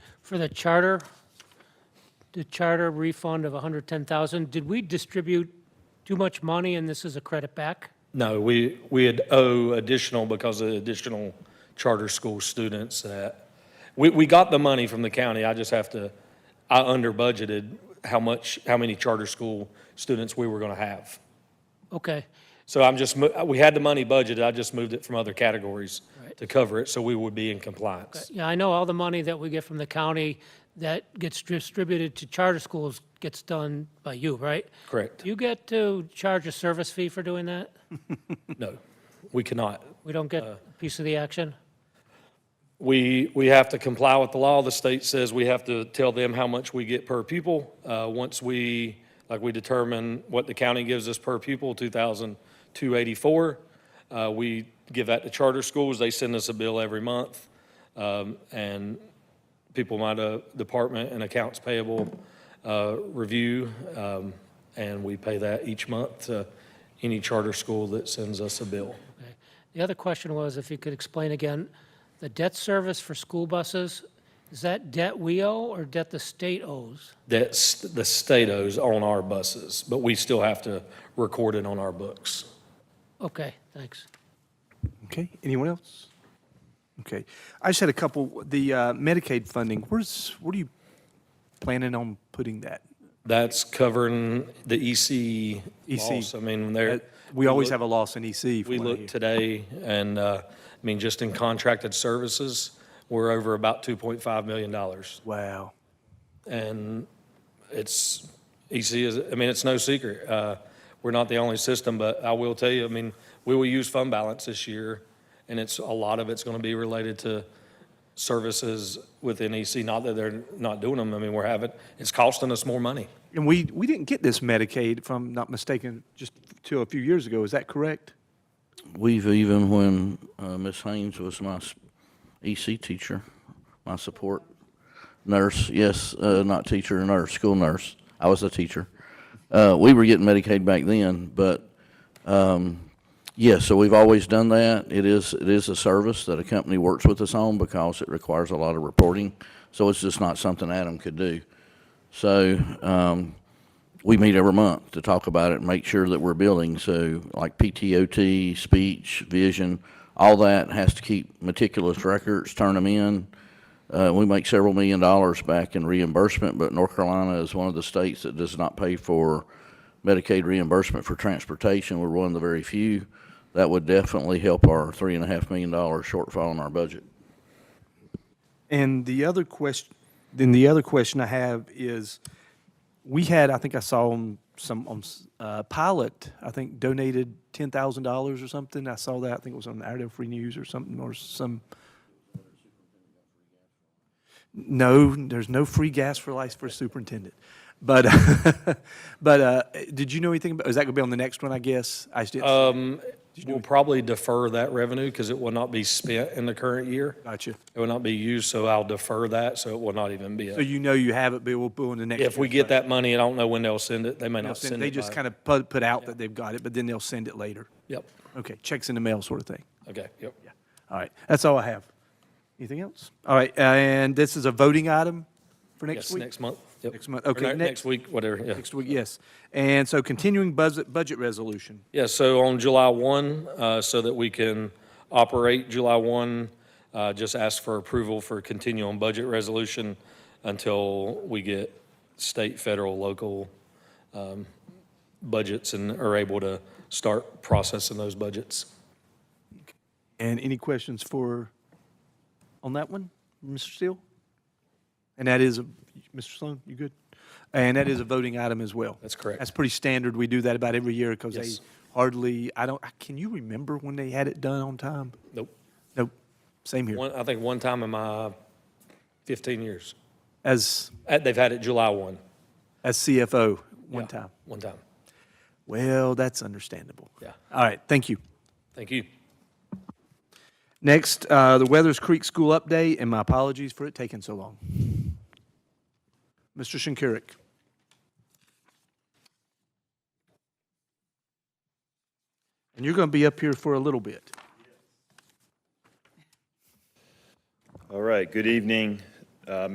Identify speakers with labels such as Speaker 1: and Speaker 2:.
Speaker 1: for the charter, the charter refund of 110,000, did we distribute too much money and this is a credit back?
Speaker 2: No, we, we had owe additional because of additional charter school students that, we, we got the money from the county, I just have to, I under budgeted how much, how many charter school students we were gonna have.
Speaker 1: Okay,
Speaker 2: So I'm just, mo- we had the money budgeted, I just moved it from other categories to cover it, so we would be in compliance.
Speaker 1: yeah, I know all the money that we get from the county that gets distributed to charter schools gets done by you, right?
Speaker 2: Correct,
Speaker 1: Do you get to charge a service fee for doing that?
Speaker 2: no, we cannot.
Speaker 1: We don't get a piece of the action?
Speaker 2: We, we have to comply with the law. The state says we have to tell them how much we get per pupil. Uh, Once we, like, we determine what the county gives us per pupil, 2,284, uh, we give that to charter schools. They send us a bill every month. Um, And people might, uh, department and accounts payable uh, review, um, and we pay that each month to any charter school that sends us a bill.
Speaker 1: Okay. The other question was if you could explain again, the debt service for school buses, is that debt we owe or debt the state owes?
Speaker 2: that's the state owes on our buses, but we still have to record it on our books.
Speaker 1: Okay, thanks.
Speaker 3: Okay, anyone else? Okay, I just had a couple, the uh, Medicaid funding, where's, what are you planning on putting that?
Speaker 2: That's covering the EC loss. I mean,
Speaker 3: Uh,
Speaker 2: there,
Speaker 3: We always have a loss in E EC. from
Speaker 2: we
Speaker 3: what I
Speaker 2: look
Speaker 3: hear.
Speaker 2: today and, uh, I mean, just in contracted services, we're over about $2.5 million.
Speaker 3: Wow,
Speaker 2: And it's, EC is, I mean, it's no secret. Uh, We're not the only system, but I will tell you, I mean, we will use fund balance this year, and it's, a lot of it's going to be related to services within EC. Not that they're not doing them, I mean, we're having, it's costing us more money.
Speaker 3: and we, we didn't get this Medicaid, if I'm not mistaken, just till a few years ago, is that correct?
Speaker 4: We've even, when uh, Miss Haynes was my s- EC teacher, my support nurse, yes, uh, not teacher, nurse, school nurse, I was a teacher. Uh, we were getting Medicaid back then, but, um, yeah, so we've always done that. It is, it is a service that a company works with us on because it requires a lot of reporting. So it's just not something Adam could do. So, um, we meet every month to talk about it and make sure that we're building. So like PTOT, speech, vision, all that has to keep meticulous records, turn them in. Uh, we make several million dollars back in reimbursement, but North Carolina is one of the states that does not pay for Medicaid reimbursement for transportation. We're one of the very few. That would definitely help our three and a half million dollar shortfall in our budget.
Speaker 3: And the other question, then the other question I have is, we had, I think I saw on some, on s- uh, Pilot, I think donated $10,000 or something. I saw that, I think it was on Idaho Free News or something, or some. No, there's no free gas for life for superintendent. But, but uh, did you know anything about, is that going to be on the next one, I guess? I just didn't.
Speaker 2: Uh, We'll probably defer that revenue because it will not be spent in the current year.
Speaker 3: Gotcha.
Speaker 2: It will not be used, so I'll defer that, so it will not even be. a-
Speaker 3: So you know you have it, but we'll put on the next.
Speaker 2: If we
Speaker 3: year's
Speaker 2: get
Speaker 3: budget.
Speaker 2: that money, I don't know when they'll send it. They may
Speaker 3: They'll
Speaker 2: not
Speaker 3: send-
Speaker 2: send it.
Speaker 3: They just
Speaker 2: by-
Speaker 3: kind of put, put out that they've got it, but then they'll send it later.
Speaker 2: Yep,
Speaker 3: Okay, checks in the mail sort of thing.
Speaker 2: okay, yep.
Speaker 3: All right, that's all I have. Anything else? All right, and this is a voting item for next
Speaker 2: Yes,
Speaker 3: week?
Speaker 2: next month. Yep.
Speaker 3: Next month,
Speaker 2: Or
Speaker 3: okay,
Speaker 2: ne-
Speaker 3: next-
Speaker 2: Next week, whatever, yeah.
Speaker 3: Next week, yes. And so continuing budget, budget resolution.
Speaker 2: Yeah, so on July 1, uh, so that we can operate July 1, uh, just ask for approval for continuing budget resolution until we get state, federal, local um, budgets and are able to start processing those budgets.
Speaker 3: And any questions for, on that one, Mr. Steele? And that is, a Mr. Sloan, you good? And that is a voting item as well.
Speaker 2: That's correct.
Speaker 3: That's pretty standard. We do that about every year because they
Speaker 2: Yes.
Speaker 3: hardly, I don't, can you remember when they had it done on time?
Speaker 2: Nope.
Speaker 3: Nope, same here.
Speaker 2: One, I think one time in my 15 years,
Speaker 3: As,
Speaker 2: Uh, they've had it July 1.
Speaker 3: as CFO, one
Speaker 2: Yeah,
Speaker 3: time.
Speaker 2: One time,
Speaker 3: Well, that's understandable.
Speaker 2: yeah.
Speaker 3: All right, thank you.
Speaker 2: Thank you.
Speaker 3: Next, uh, the Weathers Creek School update, and my apologies for it taking so long. Mr. Shinkirik. And you're going to be up here for a little bit.
Speaker 5: All right, good evening, uh,